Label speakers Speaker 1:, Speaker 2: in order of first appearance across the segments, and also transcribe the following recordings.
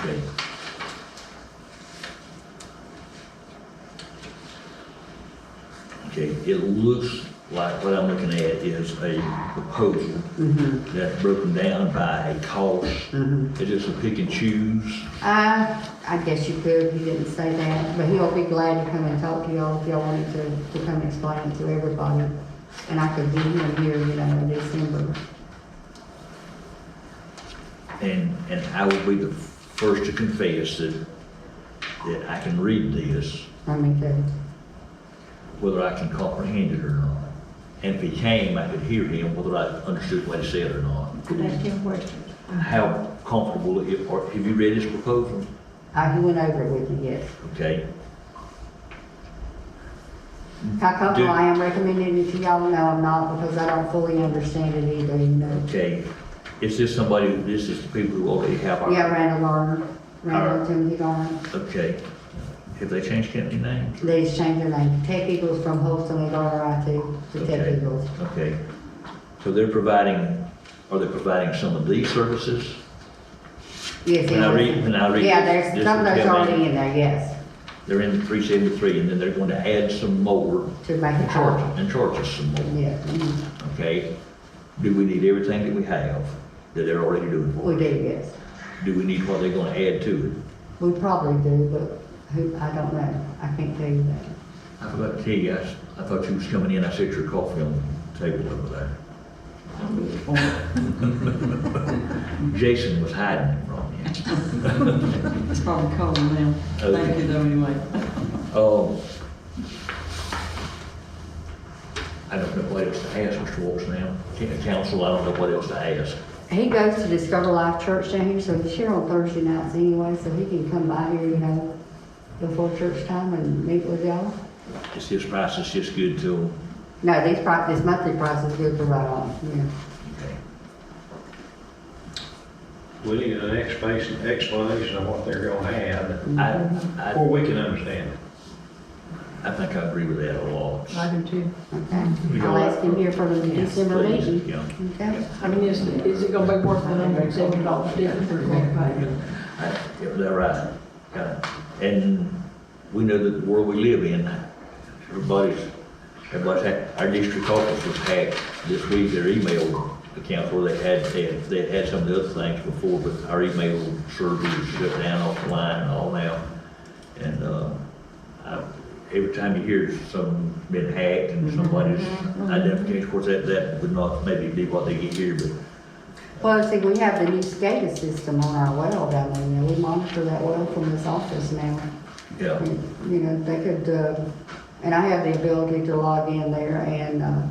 Speaker 1: Okay. Okay, it looks like what I'm looking at is a proposal that's broken down by a cost. It is a pick and choose.
Speaker 2: I, Uh, I guess you could, he didn't say that, but he'll be glad to come and talk to y'all if y'all wanted to, to come explain it to everybody. And I could be him here, you know, in December.
Speaker 1: And, and I will be the first to confess that, that I can read this,
Speaker 2: I mean, to,
Speaker 1: whether I can comprehend it or not. And if he came, I could hear him, whether I understood what he said or not.
Speaker 3: Ask him questions.
Speaker 1: How comfortable, if, or have you read his proposal?
Speaker 2: uh, he went over it with me, yes.
Speaker 1: Okay,
Speaker 2: How
Speaker 1: Do-
Speaker 2: come I am recommending it to y'all? No, I'm not, because I don't fully understand it either, you know.
Speaker 1: okay. Is this somebody, this is the people who already have our?
Speaker 2: Yeah, Randall Garner,
Speaker 1: Alright.
Speaker 2: Randall Timothy Garner.
Speaker 1: Okay. Have they changed company names?
Speaker 2: They just changed their name, Tech Eagles from Holston and Garner IT to Tech
Speaker 1: Okay.
Speaker 2: Eagles.
Speaker 1: Okay. So they're providing, are they providing some of these services?
Speaker 2: Yes,
Speaker 1: When I
Speaker 2: yes.
Speaker 1: read- when I read
Speaker 2: Yeah,
Speaker 1: this-
Speaker 2: there's,
Speaker 1: this
Speaker 2: some of
Speaker 1: will
Speaker 2: those
Speaker 1: tell me.
Speaker 2: already in there, yes,
Speaker 1: They're in three seventy-three, and then they're going to add some more
Speaker 2: to make
Speaker 1: and
Speaker 2: it
Speaker 1: charge,
Speaker 2: work.
Speaker 1: and charge us some more,
Speaker 2: Yeah, mhm.
Speaker 1: okay? Do we need everything that we have that they're already doing for
Speaker 2: we
Speaker 1: us?
Speaker 2: do, yes.
Speaker 1: Do we need what they're going to add to it?
Speaker 2: We probably do, but who, I don't know, I can't tell you that.
Speaker 1: I forgot to tell you, I, s- I thought you was coming in, I set your coffee on the table over there. Jason was hiding it from you.
Speaker 3: It's probably cold now. Thank you though anyway.
Speaker 1: Oh. I don't know what else to ask, Mr. Walsh, now. Can- Council, I don't know what else to ask.
Speaker 2: He goes to Discover Life Church down here, so he's here on Thursday nights anyway, so he can come by here, you know, before church time and meet with y'all.
Speaker 1: Is his price is just good till,
Speaker 2: No, these prices, this monthly price is good for right on, yeah.
Speaker 1: okay.
Speaker 4: We need an explanation, explanation of what they're gonna have,
Speaker 1: I,
Speaker 4: or we can understand it.
Speaker 1: I, I think I agree with that a lot.
Speaker 3: I do too.
Speaker 1: We
Speaker 2: Okay,
Speaker 1: go
Speaker 2: I'll
Speaker 1: like-
Speaker 2: ask him here for the December
Speaker 1: Please,
Speaker 2: meeting.
Speaker 1: yeah.
Speaker 2: Okay,
Speaker 3: I mean, is, is it gonna be worth the hundred and seventy dollars difference or what?
Speaker 1: I- yeah, They're right. Got it. And we know that the world we live in, everybody's, everybody's, had- our district office was hacked this week, their email account where they had, they had- they had some of the other things before, but our email server was shut down off the line and all now. And, uh, I, every time you hear some been hacked and somebody's identification, of course, that, that would not maybe be what they get here, but
Speaker 2: well, see, we have the new SCADA system on our well down there, now. we monitor that well from this office now.
Speaker 1: yeah.
Speaker 2: You know, they could, uh, and I have the ability to log in there and, uh,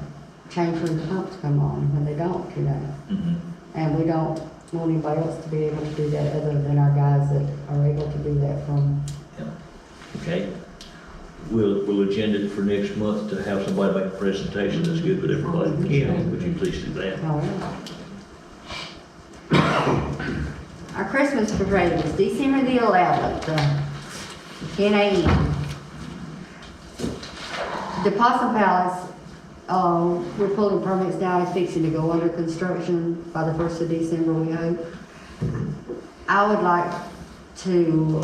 Speaker 2: change when the pumps come on, when they don't, you know.
Speaker 1: Mhm.
Speaker 2: And we don't want anybody else to be able to do that other than our guys that are able to do that from,
Speaker 1: Yeah. Okay. We'll, we'll agenda it for next month to have somebody make a presentation that's good with everybody.
Speaker 3: Yeah.
Speaker 1: Would you please do that?
Speaker 2: however. Our Christmas parade is December the eleventh, uh, ten AM. The Possum Palace, uh, we're pulling permits now, it's fixing to go under construction by the first of December, we hope. I would like to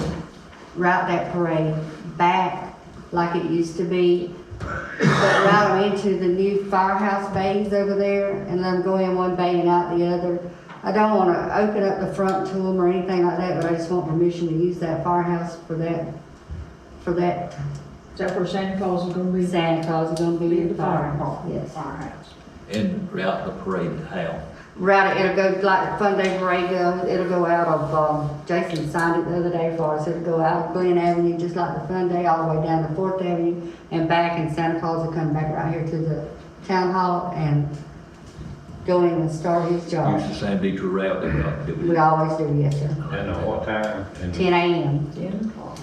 Speaker 2: route that parade back like it used to be, but route them into the new firehouse bays over there and let them go in one bay and out the other. I don't want to open up the front to them or anything like that, but I just want permission to use that firehouse for that, for that
Speaker 3: Is that where Santa Claus is gonna be?
Speaker 2: Santa Claus is gonna be in the firehouse,
Speaker 3: Fire-
Speaker 2: yes.
Speaker 3: Firehouse.
Speaker 1: And route the parade to how?
Speaker 2: Route it, it'll go like Fun Day Parade goes, it'll go out of, um, Jason signed it the other day for us, it'll go out of Glen Avenue, just like the Fun Day, all the way down to Fourth Avenue and back, and Santa Claus will come back right here to the town hall and go in and start his
Speaker 1: Use
Speaker 2: job.
Speaker 1: the same detour route that we got- that we.
Speaker 2: We always do, yes, sir.
Speaker 4: And at what time, and
Speaker 2: Ten AM.
Speaker 3: Ten o'clock.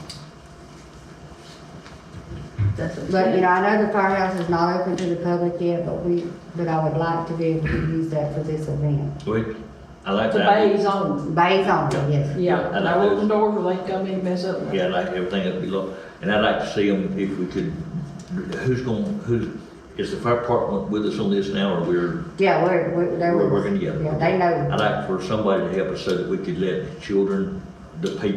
Speaker 3: That's what.
Speaker 2: But, you know, I know the firehouse is not open to the public yet, but we, but I would like to be able to use that for this event.
Speaker 1: Wait, I like
Speaker 3: The
Speaker 1: that.
Speaker 3: bay's
Speaker 1: idea.
Speaker 3: on,
Speaker 2: Bays only, yes.
Speaker 3: yeah,
Speaker 1: I
Speaker 3: and I
Speaker 1: like
Speaker 3: open the door where they come in and mess up.
Speaker 1: Yeah, I like everything that'd be low. And I'd like to see them if we could, who's going, who, is the fire department with us on this now or we're?
Speaker 2: Yeah, we're, we're, they're.
Speaker 1: We're working together.
Speaker 2: Yeah, they know.
Speaker 1: I'd like for somebody to help us so that we could let children, the people